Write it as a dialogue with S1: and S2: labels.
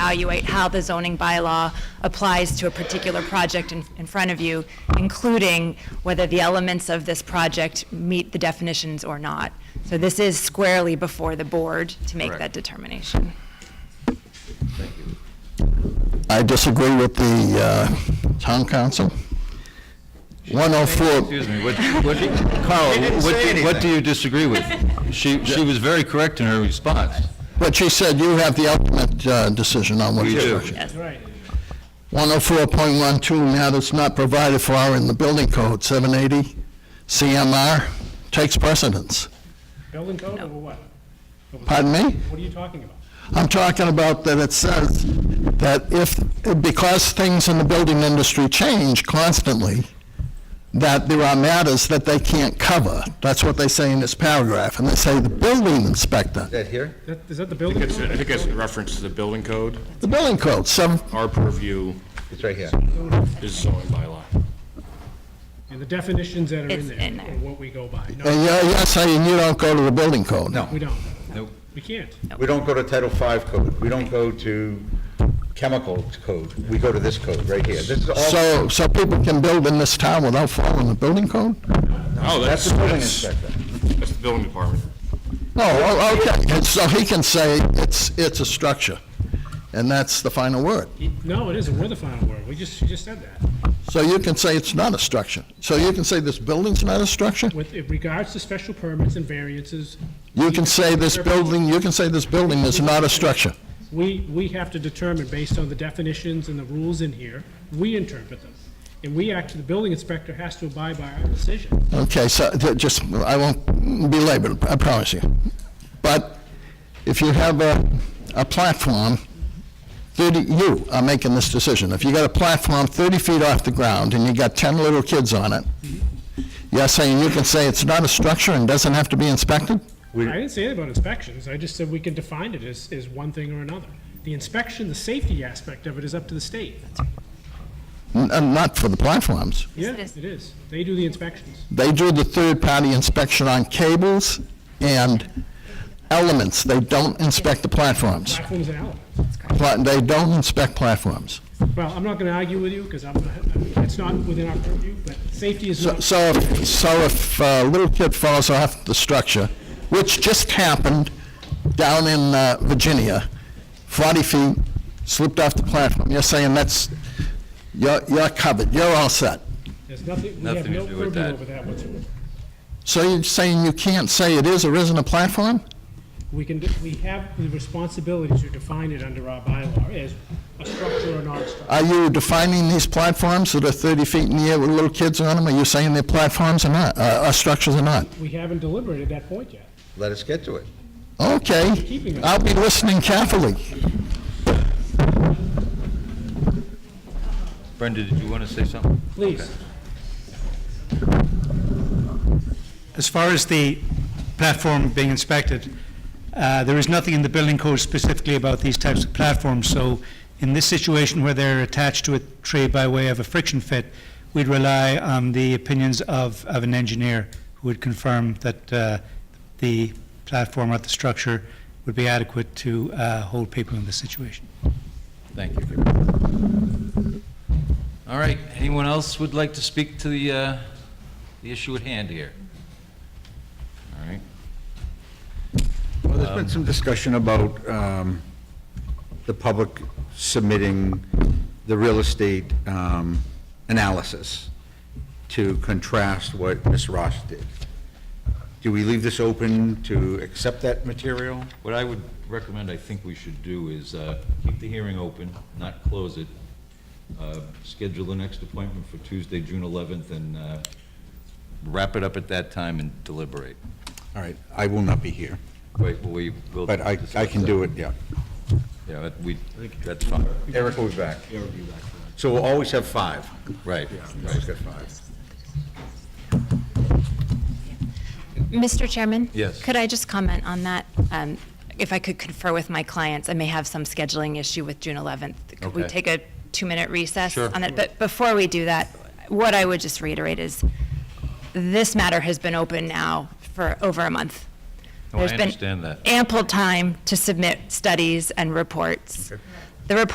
S1: evaluate how the zoning bylaw applies to a particular project in, in front of you, including whether the elements of this project meet the definitions or not. So this is squarely before the board to make
S2: Correct.
S1: that determination.
S2: Thank you.
S3: I disagree with the uh, town council. 104,
S2: Excuse me, what, what, Carl,
S4: She didn't
S2: what,
S4: say
S2: what do
S4: anything.
S2: you disagree with? She, she was very correct in her response.
S3: but she said you have the ultimate uh, decision on what
S2: We
S3: you
S2: do.
S1: Yes.
S3: 104.12, now that's not provided for in the building code, 780 CMR takes precedence.
S5: Building code or what?
S3: Pardon me?
S5: What are you talking about?
S3: I'm talking about that it says that if, because things in the building industry change constantly, that there are matters that they can't cover. That's what they say in this paragraph, and they say the building inspector,
S2: That here?
S5: That- Is that the building?
S6: It's-
S5: code?
S6: I think it's in reference to the building code.
S3: the building code, seven,
S6: Our purview
S2: It's right here.
S6: is zoning bylaw.
S5: And the definitions that are
S1: It's
S5: in
S1: in
S5: there,
S1: there.
S5: or what we go by. No,
S3: and you're, you're saying you don't go to the building code?
S2: No.
S5: we don't.
S2: Nope.
S5: We can't.
S2: We don't go to Title V code, we don't go to chemical code, we go to this code right here. This is all,
S3: So, so people can build in this town without following the building code?
S6: No,
S2: Oh, that's
S6: that's,
S2: the building
S6: that's,
S2: inspector.
S6: that's the building department.
S3: Oh, oh, okay, and so he can say it's, it's a structure, and that's the final word.
S5: No, it isn't. We're the final word. We just, you just said that.
S3: So you can say it's not a structure. So you can say this building's not a structure?
S5: With in regards to special permits and variances,
S3: You can say this building, you can say this building is not a structure.
S5: we, we have to determine based on the definitions and the rules in here, we interpret them. And we act, the building inspector has to abide by our decision.
S3: Okay, so th- just, I won't belabor, it, I promise you. But if you have a, a platform, 30, you are making this decision. If you got a platform 30 feet off the ground and you got 10 little kids on it, you're saying you can say it's not a structure and doesn't have to be inspected?
S5: I didn't say anything about inspections. I just said we can define it as, as one thing or another. The inspection, the safety aspect of it is up to the state.
S3: N- uh, Not for the platforms.
S5: Yeah,
S1: it is.
S5: it is. They do the inspections.
S3: They do the third-party inspection on cables and elements. They don't inspect the platforms.
S5: Platforms and elements.
S3: Pla- They don't inspect platforms.
S5: Well, I'm not going to argue with you because I'm, that's not within our purview, but safety is
S3: So,
S5: not,
S3: so if, so if a little kid falls off the structure, which just happened down in uh, Virginia, 40 feet, slipped off the platform, you're saying that's, you're, you're covered, you're all set.
S5: there's nothing, we have
S2: Nothing to
S5: no
S2: do with
S5: purview
S2: that.
S5: over that whatsoever.
S3: So you're saying you can't say it is or isn't a platform?
S5: We can, we have the responsibility to define it under our bylaw as a structure or not a structure.
S3: Are you defining these platforms that are 30 feet in the air with little kids on them? Are you saying they're platforms or not, uh, or structures or not?
S5: We haven't deliberated that point yet.
S2: Let us get to it.
S3: Okay, I'll be listening carefully.
S2: Brenda, did you want to say something?
S5: Please,
S7: As far as the platform being inspected, uh, there is nothing in the building code specifically about these types of platforms, so in this situation where they're attached to a tree by way of a friction fit, we'd rely on the opinions of, of an engineer who would confirm that uh, the platform or the structure would be adequate to uh, hold people in this situation.
S8: Thank you. All right, anyone else would like to speak to the, uh, the issue at hand here? All right,
S4: Well, there's been some discussion about um, the public submitting the real estate um, analysis to contrast what Ms. Ross did. Do we leave this open to accept that material?
S8: what I would recommend, I think we should do is uh, keep the hearing open, not close it. Uh, Schedule the next appointment for Tuesday, June 11th, and uh, wrap it up at that time and deliberate.
S4: All right, I will not be here,
S8: Wait, we will.
S4: but I, I can do it, yeah.
S8: Yeah, that- we, that's fine,
S2: Eric will be back. Eric will be back. So we'll always have five.
S8: right.
S2: Always got five.
S1: Mr. Chairman?
S8: Yes.
S1: Could I just comment on that? Um, If I could confer with my clients, I may have some scheduling issue with June 11th. Could we
S8: Okay.
S1: take a two-minute recess
S8: Sure.
S1: on that? But before we do that, what I would just reiterate is, this matter has been open now for over a month.
S8: No, Oh, I
S1: There's been
S8: understand that.
S1: ample time to submit studies and reports. The report